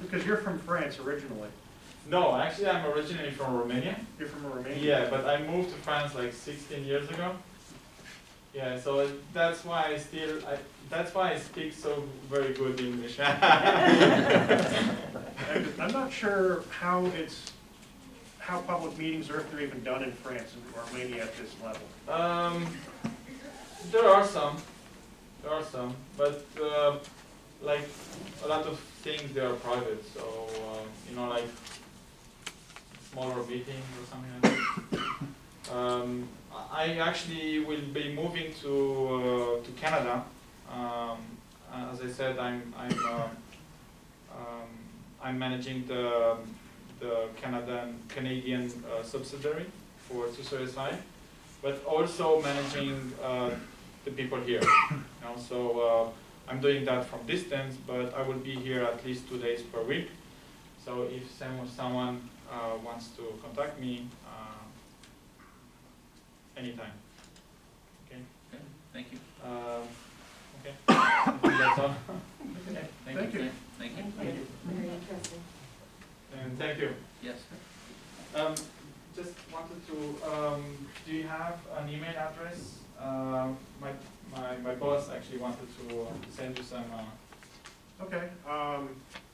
Because you're from France originally. No, actually, I'm originally from Romania. You're from Romania. Yeah, but I moved to France like 16 years ago. Yeah, so that's why I still I, that's why I speak so very good English. And I'm not sure how it's, how public meetings are, if they're even done in France and Romania at this level. um, there are some, there are some, but uh, like a lot of things they are private. So um, you know, like smaller meetings or something like that. Um, I I actually will be moving to uh, to Canada. Um, as I said, I'm I'm um, um, I'm managing the the Canadian Canadian uh, subsidiary for Susur SI, but also managing uh, the people here. you know, so uh, I'm doing that from distance, but I will be here at least two days per week. So if some, someone uh, wants to contact me, uh, anytime. Okay. Okay, thank you. Um, okay. I think that's all. Thank you. Thank you. Thank you. Very interesting. And thank you. Yes. Um, just wanted to, um, do you have an email address? Um my, my, my boss actually wanted to uh, send you some, uh, Okay, um,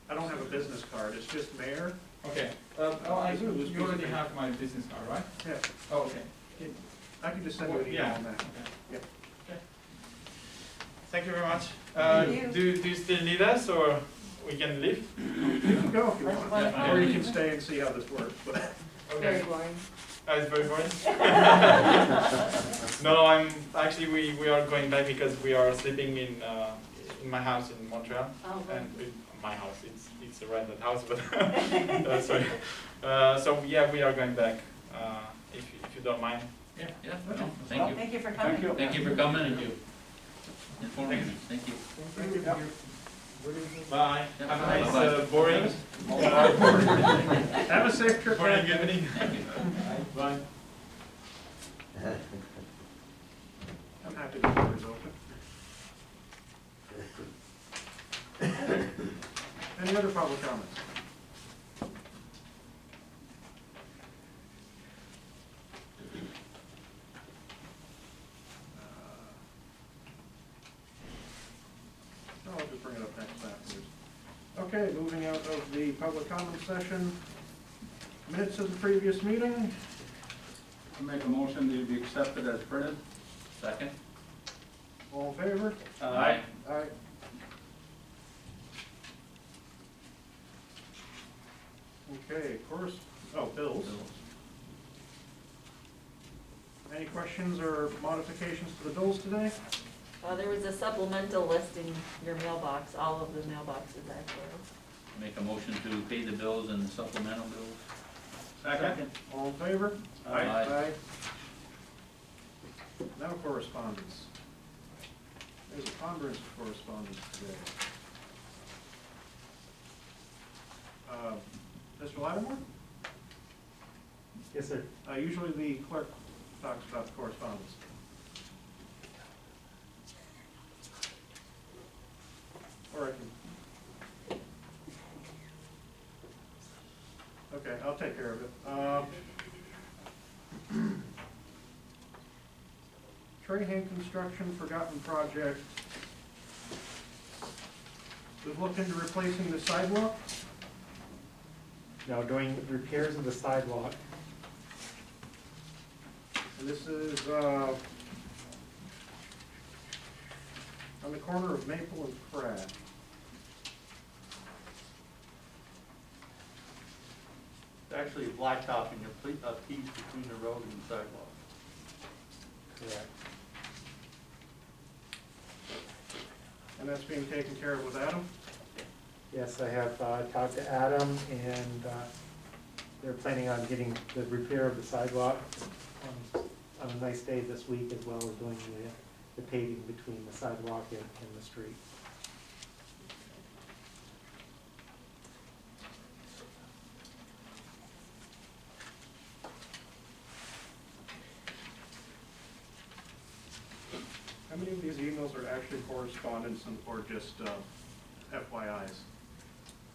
I don't have a business card, it's just mayor. okay. Uh, oh, I do, This you already business- have my business card, right? Yeah, Oh, okay. I can just send you an email Yeah, on that. okay. Yeah. Okay. Thank you very much. Uh, Thank you. do, do you still need us or we can leave? You can go if you want, Well, Yeah, or you yeah. can stay and see how this works, but Very Okay. boring. Uh, it's very boring. no, I'm, actually we, we are going back because we are sleeping in, uh, in my house in Montreal. Oh, and it, my house, it's, it's a rented house, but, uh, sorry. Uh, so, yeah, we are going back, uh, if, you- if you don't mind. Yeah, yeah, Okay. no, thank you. Thank you for thank coming. you. Thank you for coming and you informing me. Thank you. Thank you. Bye, have a nice, Bye-bye. uh, boring, Have a safe trip. boring back. evening. Thank you. Bye. I'm happy the door is open. Any other public comments? Uh, No, I'll just bring it up next afterwards. Okay, moving out of the public comment session. Minutes of the previous meeting, I Make a motion that it be accepted as printed. Second? all in favor? Uh, Aye. Aye. Okay, of course, oh, bills. Any questions or modifications to the bills today? Well, there was a supplemental list in your mailbox, all of the mailboxes actually. Make a motion to pay the bills and supplemental bills. Second? All in favor? Aye. Aye. Aye. Now correspondence. There's a ponderance of correspondence today. Uh, Mr. Lattimore? Yes, sir. Uh, usually the clerk talks about the correspondence. Or I can. Okay, I'll take care of it. Um, Uh, Trahan Construction Forgotten Project. We've looked into replacing the sidewalk. Now, doing repairs of the sidewalk, And this is, uh, on the corner of Maple and Pratt. It's Actually, blacktop and your ple- uh, piece between the road and the sidewalk. correct, And that's being taken care of with Adam? yes, I have uh, talked to Adam, and uh, they're planning on getting the repair of the sidewalk on- on a nice day this week, as well as doing the- the paving between the sidewalk and and the street. How many of these emails are actually correspondence and, or just, uh, FYIs?